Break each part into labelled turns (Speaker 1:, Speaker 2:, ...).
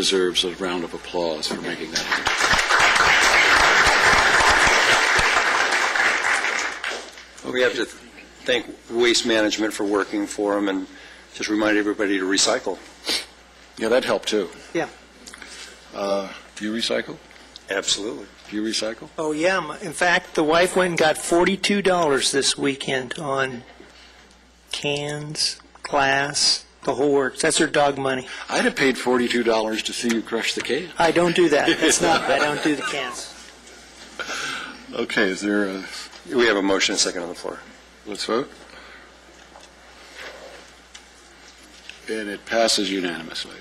Speaker 1: deserves a round of applause for making that happen.
Speaker 2: We have to thank Waste Management for working for them, and just remind everybody to recycle.
Speaker 1: Yeah, that helped too.
Speaker 3: Yeah.
Speaker 1: Uh, Do you recycle?
Speaker 2: Absolutely.
Speaker 1: Do you recycle?
Speaker 3: Oh, yeah. m- In fact, the wife went and got $42 this weekend on cans, glass, the whole works. That's her dog money.
Speaker 1: I'd have paid forty-two dollars to see you crush the can.
Speaker 3: I don't do that. That's not, I don't do the cans.
Speaker 1: Okay, is there a,
Speaker 2: We have a motion and a second on the floor.
Speaker 1: let's vote? And it passes unanimously.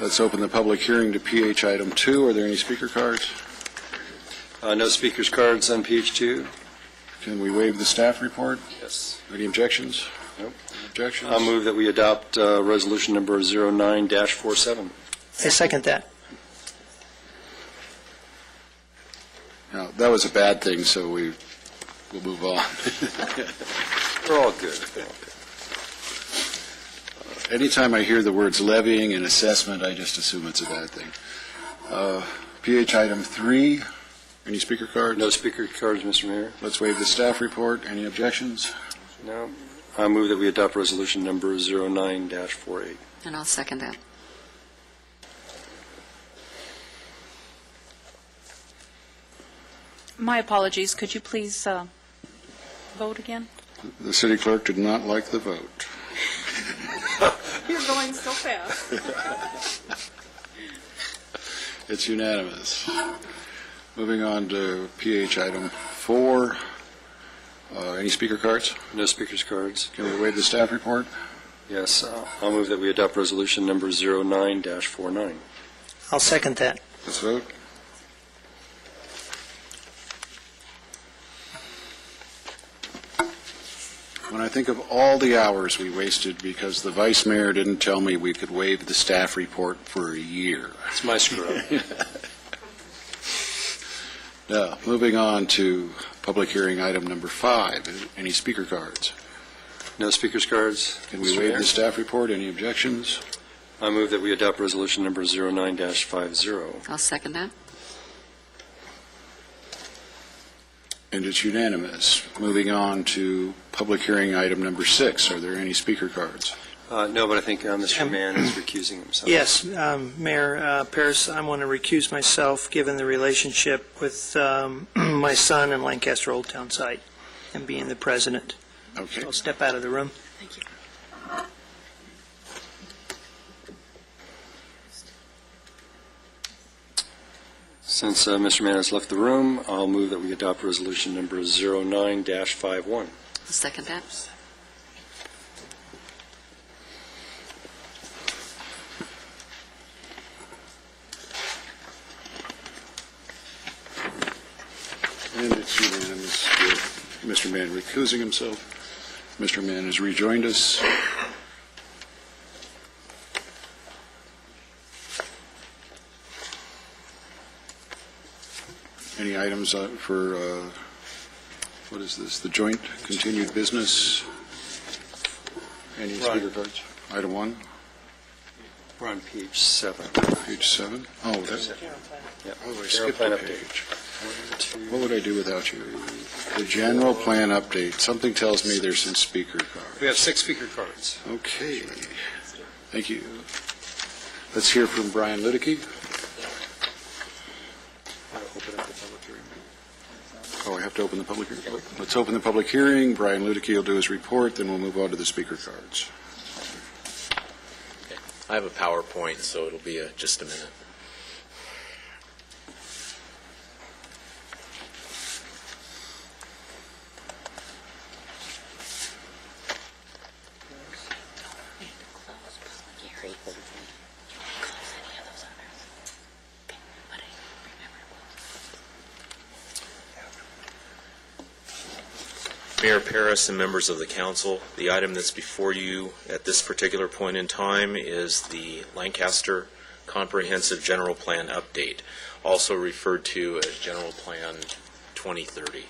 Speaker 1: Let's open the public hearing to PH item two. Are there any speaker cards?
Speaker 2: Uh, No speakers cards on page two?
Speaker 1: Can we waive the staff report?
Speaker 2: Yes.
Speaker 1: Any objections?
Speaker 2: Nope.
Speaker 1: Objections?
Speaker 2: I'll move that we adopt uh, resolution number 09-47.
Speaker 3: I second that.
Speaker 1: No, that was a bad thing, so we will move on.
Speaker 2: We're all good.
Speaker 1: Anytime I hear the words levying and assessment, I just assume it's a bad thing. Uh, PH item three, any speaker cards?
Speaker 2: No speaker cards, Mr. Mayor?
Speaker 1: Let's waive the staff report. Any objections?
Speaker 2: No. I move that we adopt resolution number 09-48.
Speaker 4: And I'll second that.
Speaker 5: My apologies, could you please uh, vote again?
Speaker 1: The city clerk did not like the vote.
Speaker 5: You're going so fast.
Speaker 1: It's unanimous. Moving on to PH item four, Uh, any speaker cards?
Speaker 2: No speakers cards?
Speaker 1: Can we waive the staff report?
Speaker 2: Yes. Uh, I'll move that we adopt resolution number 09-49.
Speaker 3: I'll second that.
Speaker 1: Let's vote. When I think of all the hours we wasted because the vice mayor didn't tell me we could waive the staff report for a year.
Speaker 2: It's my screw-up.
Speaker 1: Now, moving on to public hearing item number five, any speaker cards?
Speaker 2: No speakers cards?
Speaker 1: Can we
Speaker 2: Mr.
Speaker 1: waive
Speaker 2: Mayor?
Speaker 1: the staff report? Any objections?
Speaker 2: I move that we adopt resolution number 09-50.
Speaker 4: I'll second that.
Speaker 1: And it's unanimous. Moving on to public hearing item number six, are there any speaker cards?
Speaker 2: Uh, No, but I think uh, Mr.
Speaker 3: Um,
Speaker 2: Mann is recusing himself.
Speaker 3: Yes, um, Mayor uh, Paris, I want to recuse myself, given the relationship with um, my son and Lancaster Old Town site and being the president.
Speaker 1: Okay.
Speaker 3: I'll step out of the room.
Speaker 2: Since uh, Mr. Mann has left the room, I'll move that we adopt resolution number 09-51.
Speaker 4: I'll second that.
Speaker 1: And it's unanimous with Mr. Mann recusing himself. Mr. Mann has rejoined us. Any items uh, for, uh, what is this, the joint continued business? Any speaker
Speaker 2: Right.
Speaker 1: cards? Item one,
Speaker 2: We're on page seven.
Speaker 1: page seven? Oh, that's,
Speaker 2: Yep.
Speaker 1: oh, I
Speaker 2: General
Speaker 1: skipped
Speaker 2: plan
Speaker 1: a
Speaker 2: update.
Speaker 1: page.
Speaker 2: One, two,
Speaker 1: What would I do without you? The general plan update, something tells me there's some speaker card.
Speaker 2: We have six speaker cards.
Speaker 1: Okay, thank you. Let's hear from Brian Liddicky.
Speaker 2: Open up the public hearing.
Speaker 1: Oh, I have to open the public hearing. Let's open the public hearing. Brian Liddicky will do his report, then we'll move on to the speaker cards.
Speaker 6: I have a PowerPoint, so it'll be a- just a minute. Mayor Paris and members of the council, the item that's before you at this particular point in time is the Lancaster Comprehensive General Plan Update, also referred to as General Plan 2030.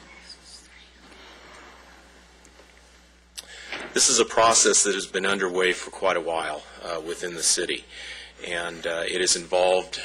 Speaker 6: This is a process that has been underway for quite a while uh, within the city, and uh, it is involved